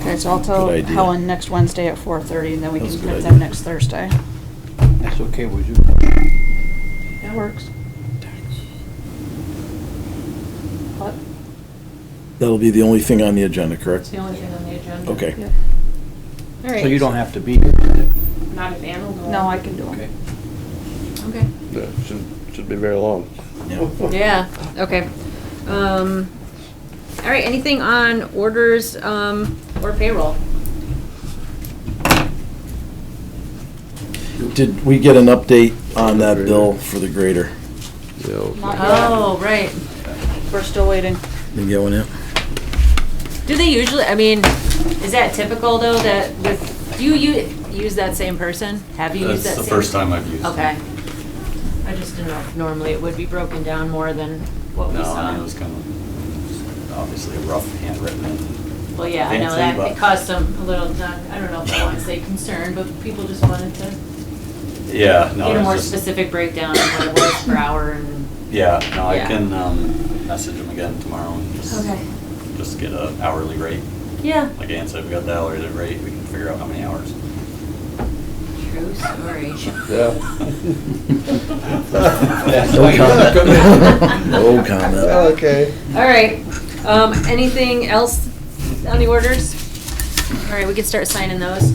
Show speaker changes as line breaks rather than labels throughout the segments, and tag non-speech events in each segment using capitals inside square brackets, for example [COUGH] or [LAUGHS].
it's also
Good idea.
Helen next Wednesday at four thirty, and then we
That's
can
a good
print
idea.
them next Thursday.
That's okay with you.
That works. What?
That'll be the only thing on the agenda,
It's
correct?
the only thing on the agenda.
Okay.
Yeah.
All right.
So you don't have to be here.
Not if Ann will go.
No, I can do
Okay.
them.
Okay.
Yeah, should, should be very long.
Yeah.
Yeah, okay. Um, all right, anything on orders, um, or payroll?
Did we get an update on that bill for the grader?
Yeah, okay.
Oh,
[LAUGHS]
right.
We're still waiting.
Didn't get one yet?
Do they usually, I mean, is that typical though, that with, do you u- use that same person? Have you used that
That's
same?
the first time I've used it.
Okay. I just didn't know, if normally it would be broken down more than what we
No,
saw.
I mean, it was kind of, obviously a rough handwritten. and
Well, yeah, I know
fancy,
that,
but-
it caused some, a little, not- I don't know if I want
[LAUGHS]
to say concern, but people just wanted to
Yeah, no.
get a
it's
more
just-
specific breakdown of what it was per hour and.
Yeah, no, I
Yeah.
can, um, message him again tomorrow and just, just get a hourly rate.
Yeah.
Like Ann said, we got the hourly rate, we can figure out how many hours.
True story. [LAUGHS] [LAUGHS]
No comment.
Okay.
All right, um, anything else on the orders? All right, we can start signing those.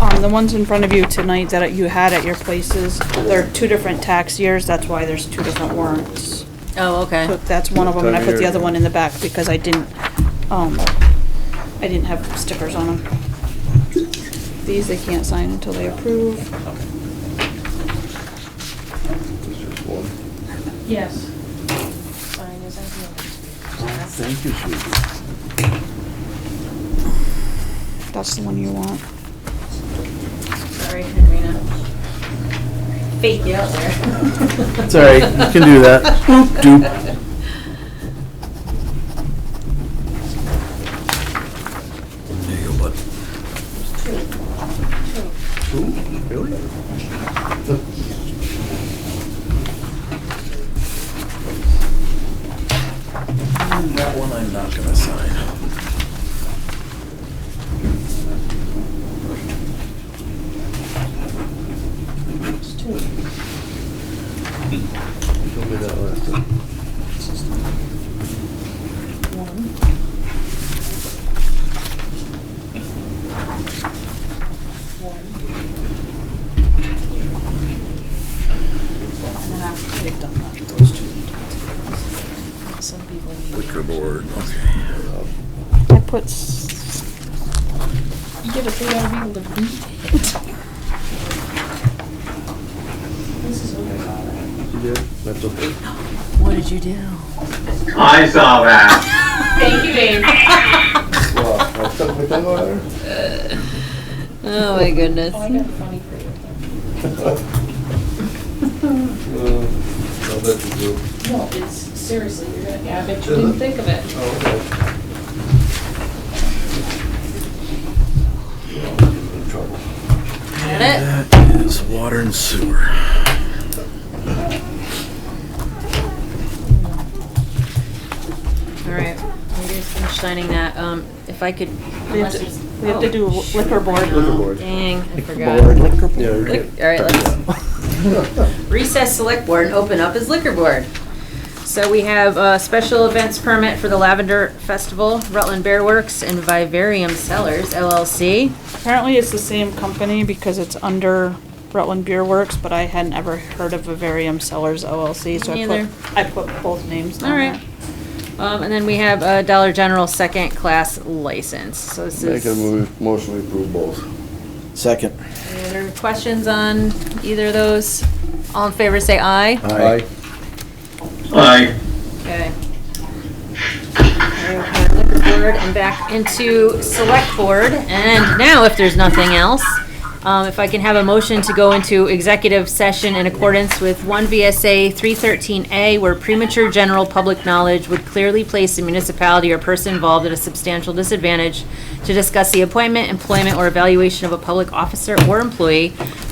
Um, the ones in front of you tonight that you had at your places, they're two different tax years, that's why there's two different warrants.
Oh, okay.
But that's one of them, and I put the other one in the back because I didn't, um, I didn't have stickers on them. These they can't sign until they approve.
Yes.
Thank you, Susan.
That's the one you want.
Sorry, Henrina. Fake you out
[LAUGHS]
there.
It's all right, you can
[LAUGHS]
do that. Boop, doop. There you go, bud.
Really?
That one I'm not gonna sign.
Told me that last time.
And then after they've done that,
Some people need.
Liquor board, okay.
I put. s-
You get a thing out of people to beat.
You did? That's okay.
What did you do?
I saw that.
[LAUGHS] Thank you, babe.
Wow, I stuck my tongue out there?
Oh, my goodness.
Uh, I'll bet you do. [LAUGHS]
No, it's, seriously, you're gonna, yeah, I bet you
Is
didn't
it?
think of it.
Oh, okay. Well, I'm getting in trouble.
Got it?
That is water and sewer.
All right, we just finished signing that. Um, if I could.
We have
unless
to-
there's-
we have to
oh,
do liquor
shoot, I
board.
know.
Liquor board.
Dang, I forgot.
board.
Yeah, you're
Lick-
good.
All right, let's [LAUGHS] recess select board and open up as liquor board. So we have a special events permit for the Lavender Festival, Rutland Bear Works, and Vivarium Cellars LLC.
Apparently it's the same company because it's under Rutland Beer Works, but I hadn't ever heard of Vivarium Sellers LLC, so I
Neither.
put, I put both names
All
on
right.
it.
Um, and then we have a Dollar General second class license. So this
Make a
is.
move, motion to approve both.
Second.
Any other questions on either of those? All in favor, say aye.
Aye.
Like,
Okay. We're Liquor board and back into select board, and now if there's nothing else, um, if I can have a motion to go into executive session in accordance with one VSA three thirteen A, where premature general public knowledge would clearly place a municipality or person involved at a substantial disadvantage to discuss the appointment, employment, or evaluation of a public officer or employee,